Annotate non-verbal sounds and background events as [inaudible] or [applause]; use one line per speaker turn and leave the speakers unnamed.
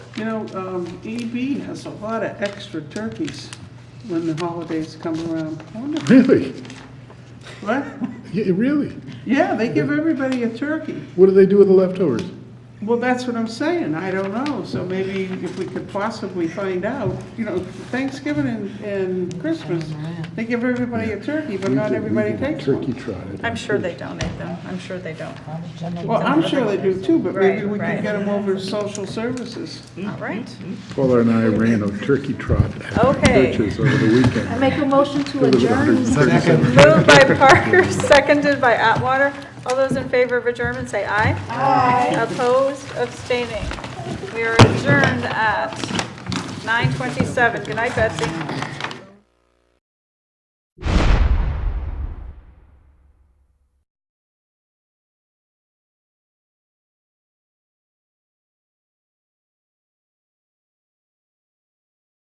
You know, um, EB has a lot of extra turkeys when the holidays come around. I wonder-
Really?
What?
Yeah, really?
Yeah, they give everybody a turkey.
What do they do with the leftovers?
Well, that's what I'm saying, I don't know, so maybe if we could possibly find out, you know, Thanksgiving and, and Christmas, they give everybody a turkey, but
We
not
did- we
everybody
did a
takes one.
Turkey trot. at-
I'm sure they donate them, I'm sure they don't.
Well, I'm sure they do too, but maybe
Right,
we could
right.
get them over to social services.
All right,
Paula and I ran a turkey trot at
Okay.
Birch's over the weekend.
I make a motion to
There was
adjourn.
137
moved by Parker, [laughs] seconded by Atwater. All those in favor of adjournment, say aye. Aye. Opposed, abstaining. We are adjourned at 9:27. Good night, Betsy.